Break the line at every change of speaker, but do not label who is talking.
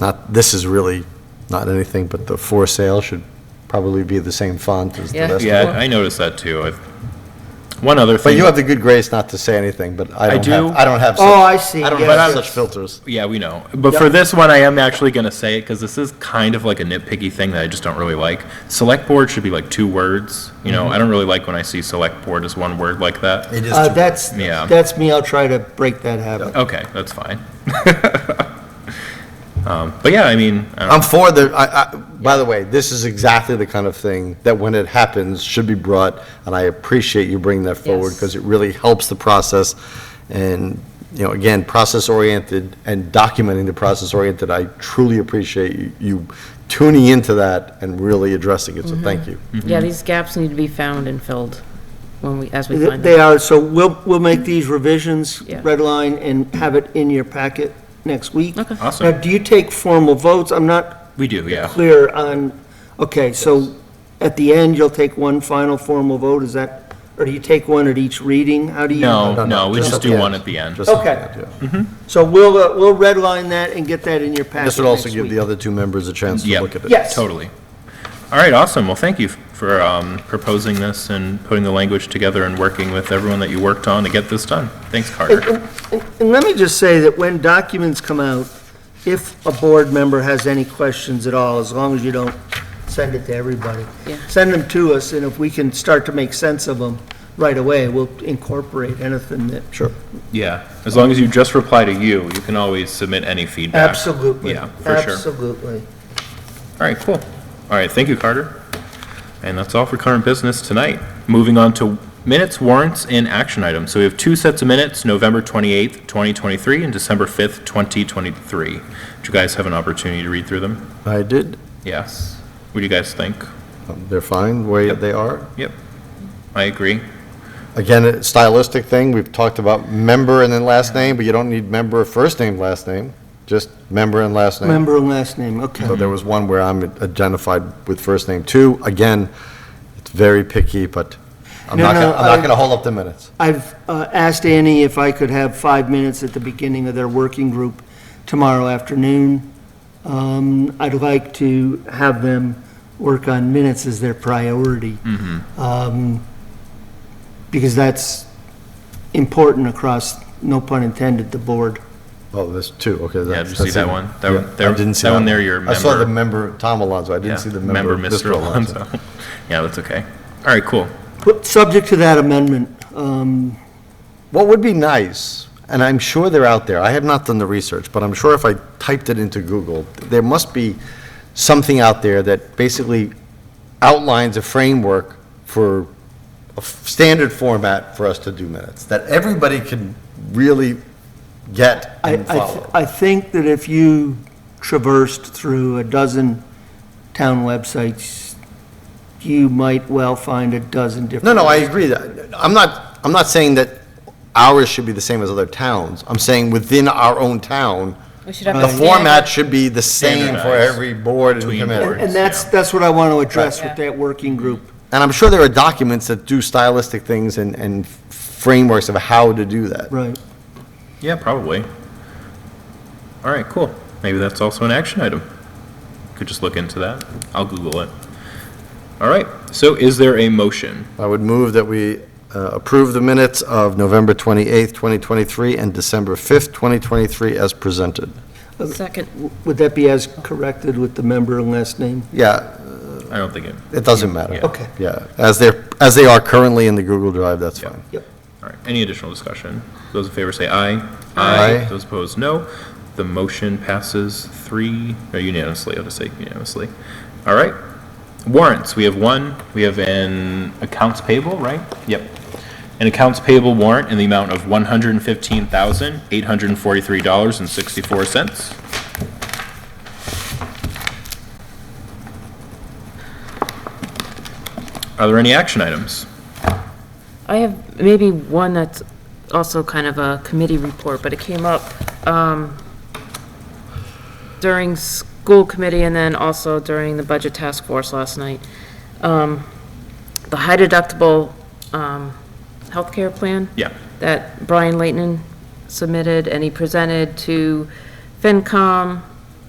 not, this is really not anything, but the for sale should probably be the same font as the
Yeah.
rest of
Yeah,
it.
I noticed that too. I've- One other
But
thing.
you have the good grace not to say anything, but I
I
don't have,
do.
I don't have.
Oh,
such-
I see,
I don't
yes,
have
yes.
such filters.
Yeah, we know. But for this one, I am actually going to say it because this is kind of like a nitpicky thing that I just don't really like. Select board should be like two words. You
Mm-hmm.
know, I don't really like when I see select board as one word like that.
It is
Uh, That's,
Yeah.
that's me, I'll try to break that habit.
Okay, that's fine. um, but yeah, I mean, I don't
I'm for the, I, I, by the way, this is exactly the kind of thing that when it happens, should be brought, and I appreciate you bringing that forward,
Yes.
because it really helps the process, and, you know, again, process-oriented and documenting the process-oriented, I truly appreciate you- you tuning into that and really addressing it,
Mm-hmm.
so thank you.
Yeah, these gaps need to be found and filled when we, as we find
They
them.
are, so we'll, we'll make these revisions,
Yeah.
red line, and have it in your packet next week.
Okay.
Awesome.
Now, do you take formal votes? I'm not
we do, yeah.
clear on, okay, so at the end, you'll take one final formal vote, is that, or do you take one at each reading? How do you?
No, no, we
just
just
at the
do
end.
one at the end.
Just something
Okay.
to do.
So we'll, uh, we'll red line that and get that in your packet
This would also
next
give
week.
the other two members a chance to
Yeah.
look at it.
Yes.
Totally. All right, awesome. Well, thank you for um, proposing this and putting the language together and working with everyone that you worked on to get this done. Thanks, Carter.
And- And let me just say that when documents come out, if a board member has any questions at all, as long as you don't send it to everybody,
Yeah.
send them to us, and if we can start to make sense of them right away, we'll incorporate anything that. Sure.
Yeah, as long as you just reply to you, you can always submit any feedback.
Absolutely.
Yeah, for sure. All
Absolutely.
right, cool. All right, thank you, Carter. And that's all for current business tonight. Moving on to minutes, warrants, and action items. So we have two sets of minutes, November 28th, 2023, and December 5th, 2023. Did you guys have an opportunity to read through them?
I did,
Yes. What do you guys think?
Um, they're fine, the way they are.
Yep, I agree.
Again, a stylistic thing, we've talked about member and then last name, but you don't need member, first name, last name, just member and last name.
Member and last name, okay.
So there was one where I'm identified with first name too. Again, it's very picky, but I'm
No,
not
no,
gonna, I'm not
I-
gonna hold up the minutes.
I've uh, asked Annie if I could have five minutes at the beginning of their working group tomorrow afternoon. Um, I'd like to have them work on minutes as their priority. Um, Because that's important across, no pun intended, the board.
Oh, there's two, okay.
Yeah,
that's-
did you see
that's
that
it.
one? That
Yeah,
one- there-
I didn't see
that one there, your
I saw
member-
the member, Tom Alonso, I didn't see the member, Mr. Alonso.
Yeah, that's okay. All right, cool.
But Subject to that amendment, um,
What would be nice, and I'm sure they're out there, I have not done the research, but I'm sure if I typed it into Google, there must be something out there that basically outlines a framework for a f- standard format for us to do minutes, that everybody can really get
I,
and
I, th-
follow.
I think that if you traversed through a dozen town websites, you might well find a dozen different.
No, no, I agree. that- I'm not, I'm not saying that ours should be the same as other towns. I'm saying within our own town,
We should have
the
a standard.
format should be the same for
Standardized
every board and
between
committee.
boards.
And that's, that's what I want to address with
Right.
that working group.
And I'm sure there are documents that do stylistic things and, and frameworks of how to do that.
Right.
Yeah, probably. All right, cool. Maybe that's also an action item. Could just look into that. I'll Google it. All right, so is there a motion?
I would move that we uh, approve the minutes of November 28th, 2023, and December 5th, 2023, as presented.
Second,
Would that be as corrected with the member and last name?
Yeah,
I don't think it,
it doesn't matter.
Yeah.
Okay.
Yeah, as they're, as they are currently in the Google Drive, that's
Yeah.
fine.
all right, any additional discussion? Those in favor say aye.
Aye.
Those opposed, no. The motion passes three, or unanimously, I'll just say unanimously. All right. Warrants, we have one, we have an accounts payable, right? Yep. An accounts payable warrant in the amount of one hundred and fifteen thousand, eight hundred and forty-three dollars and sixty-four cents. Are there any action items?
I have maybe one that's also kind of a committee report, but it came up um, during school committee and then also during the budget task force last night. Um, The high deductible um, healthcare plan.
Yeah.
That Brian Leighton submitted and he presented to FinCom,